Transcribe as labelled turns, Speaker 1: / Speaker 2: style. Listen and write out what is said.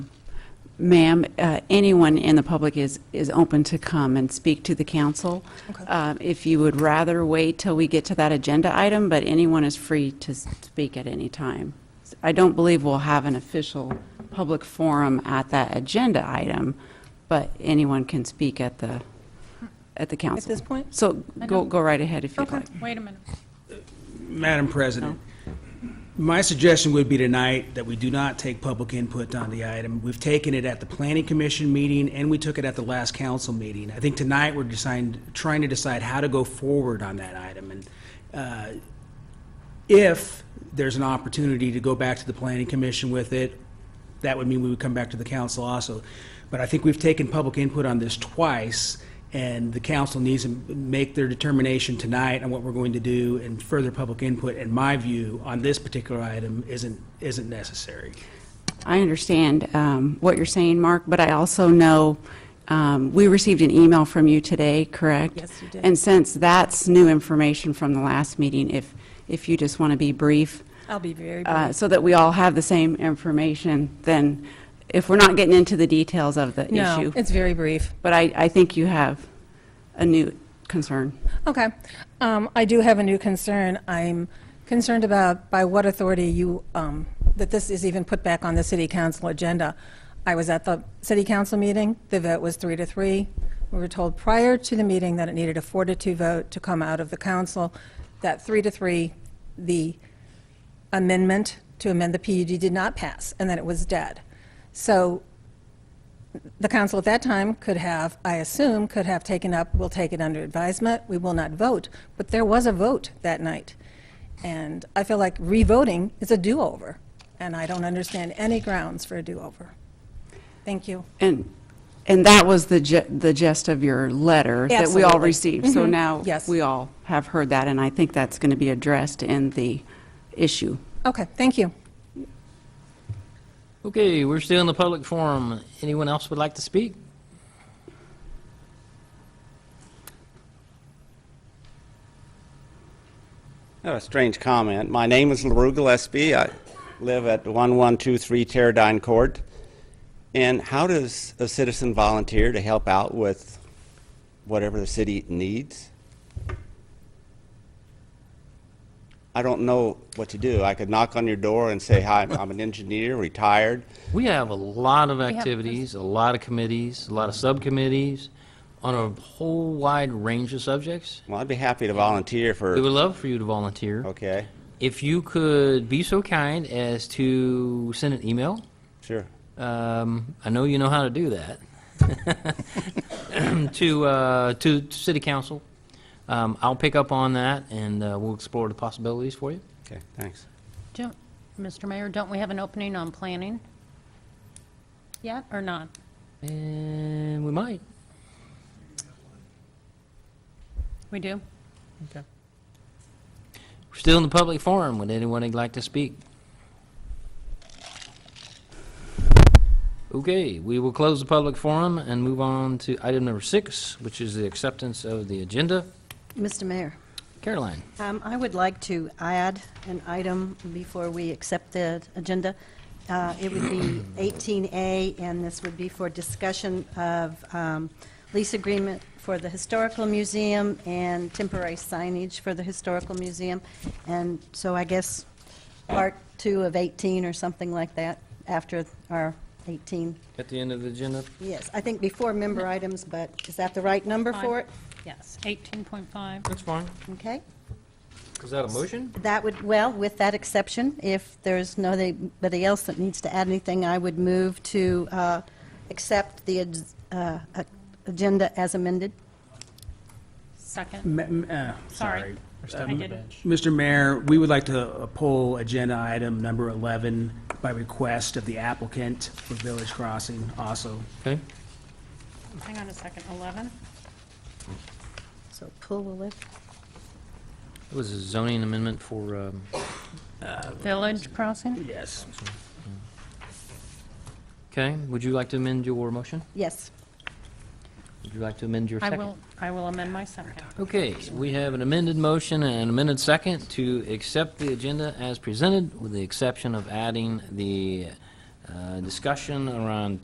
Speaker 1: Ma'am, uh, anyone in the public is, is open to come and speak to the council. Uh, If you would rather wait till we get to that agenda item, but anyone is free to s- speak at any time. I don't believe we'll have an official public forum at that agenda item, but anyone can speak at the, at the council.
Speaker 2: this point?
Speaker 1: So go, go right ahead if you'd like.
Speaker 3: Wait a minute.
Speaker 4: Madam President, my suggestion would be tonight that we do not take public input on the item. We've taken it at the Planning Commission meeting, and we took it at the last council meeting. I think tonight, we're deciding, trying to decide how to go forward on that item. And uh, if there's an opportunity to go back to the Planning Commission with it, that would mean we would come back to the council also. But I think we've taken public input on this twice, and the council needs to make their determination tonight on what we're going to do, and further public input, in my view, on this particular item isn't, isn't necessary.
Speaker 1: I understand um, what you're saying, Mark, but I also know, um, we received an email from you today, correct?
Speaker 2: Yes, you did.
Speaker 1: And since that's new information from the last meeting, if, if you just want to be brief,
Speaker 2: I'll be Oh, very brief.
Speaker 1: uh, so that we all have the same information, then if we're not getting into the details of the
Speaker 2: No,
Speaker 1: issue.
Speaker 2: it's very brief.
Speaker 1: But I, I think you have a new concern.
Speaker 2: Okay. Um, I do have a new concern. I'm concerned about by what authority you, um, that this is even put back on the city council agenda. I was at the city council meeting. The vote was three to three. We were told prior to the meeting that it needed a four to two vote to come out of the council. That three to three, the amendment to amend the PUD did not pass, and that it was dead. So the council at that time could have, I assume, could have taken up, we'll take it under advisement, we will not vote, but there was a vote that night. And I feel like revoting is a do-over, and I don't understand any grounds for a do-over. Thank you.
Speaker 1: And, and that was the ge- the gist of your letter that we all
Speaker 2: Absolutely. Mm-hmm.
Speaker 1: received. So now,
Speaker 2: Yes.
Speaker 1: we all have heard that, and I think that's going to be addressed in the issue.
Speaker 2: Okay, thank you.
Speaker 5: Okay, we're still in the public forum. Anyone else would like to speak?
Speaker 6: Oh, A strange comment. My name is LaRue Gillespie. I live at 1123 Teradyne Court. And how does a citizen volunteer to help out with whatever the city needs? I don't know what to do. I could knock on your door and say, "Hi, I'm an engineer, retired."
Speaker 5: We have a lot of
Speaker 3: have-
Speaker 5: activities, a lot of committees, a lot of subcommittees on a whole wide range of subjects.
Speaker 6: Well, I'd be happy to volunteer
Speaker 5: We would
Speaker 6: for,
Speaker 5: love for you to volunteer.
Speaker 6: okay,
Speaker 5: If you could be so kind as to send an email,
Speaker 6: sure.
Speaker 5: um, I know you know how to do that, to, uh, to to City Council. Um, I'll pick up on that and uh, we'll explore the possibilities for you.
Speaker 6: Okay, thanks.
Speaker 3: Don't- Mr. Mayor, don't we have an opening on planning? Yet, or not?
Speaker 5: And we might.
Speaker 3: We do?
Speaker 5: We're still in the public forum. Would anyone like to speak? Okay, we will close the public forum and move on to item number six, which is the acceptance of the agenda.
Speaker 7: Mr. Mayor,
Speaker 5: Caroline,
Speaker 7: um, I would like to add an item before we accept the agenda. Uh, It would be 18A, and this would be for discussion of um, lease agreement for the Historical Museum and temporary signage for the Historical Museum. And so I guess part two of 18 or something like that, after our 18.
Speaker 5: at the end of the agenda,
Speaker 7: Yes, I think before member items, but is that the right number for it?
Speaker 3: Yes, 18.5.
Speaker 5: that's fine.
Speaker 7: Okay.
Speaker 5: Is that a motion?
Speaker 7: That would, well, with that exception, if there's nobody else that needs to add anything, I would move to uh, accept the ag- uh, uh, agenda as amended.
Speaker 3: Second.
Speaker 4: Ma- m- uh,
Speaker 3: Sorry.
Speaker 4: Sorry.
Speaker 3: I didn't.
Speaker 4: Mr. Mayor, we would like to uh, pull agenda item number 11 by request of the applicant for Village Crossing also.
Speaker 5: Okay,
Speaker 3: Hang on a second. 11?
Speaker 7: So pull will lift.
Speaker 5: it was a zoning amendment for, um,
Speaker 3: Village Crossing?
Speaker 4: Yes.
Speaker 5: okay, would you like to amend your motion?
Speaker 7: Yes.
Speaker 5: Would you like to amend your
Speaker 3: I
Speaker 5: second?
Speaker 3: will, I will amend my second.
Speaker 5: Okay, we have an amended motion and an amended second to accept the agenda as presented, with the exception of adding the uh, discussion around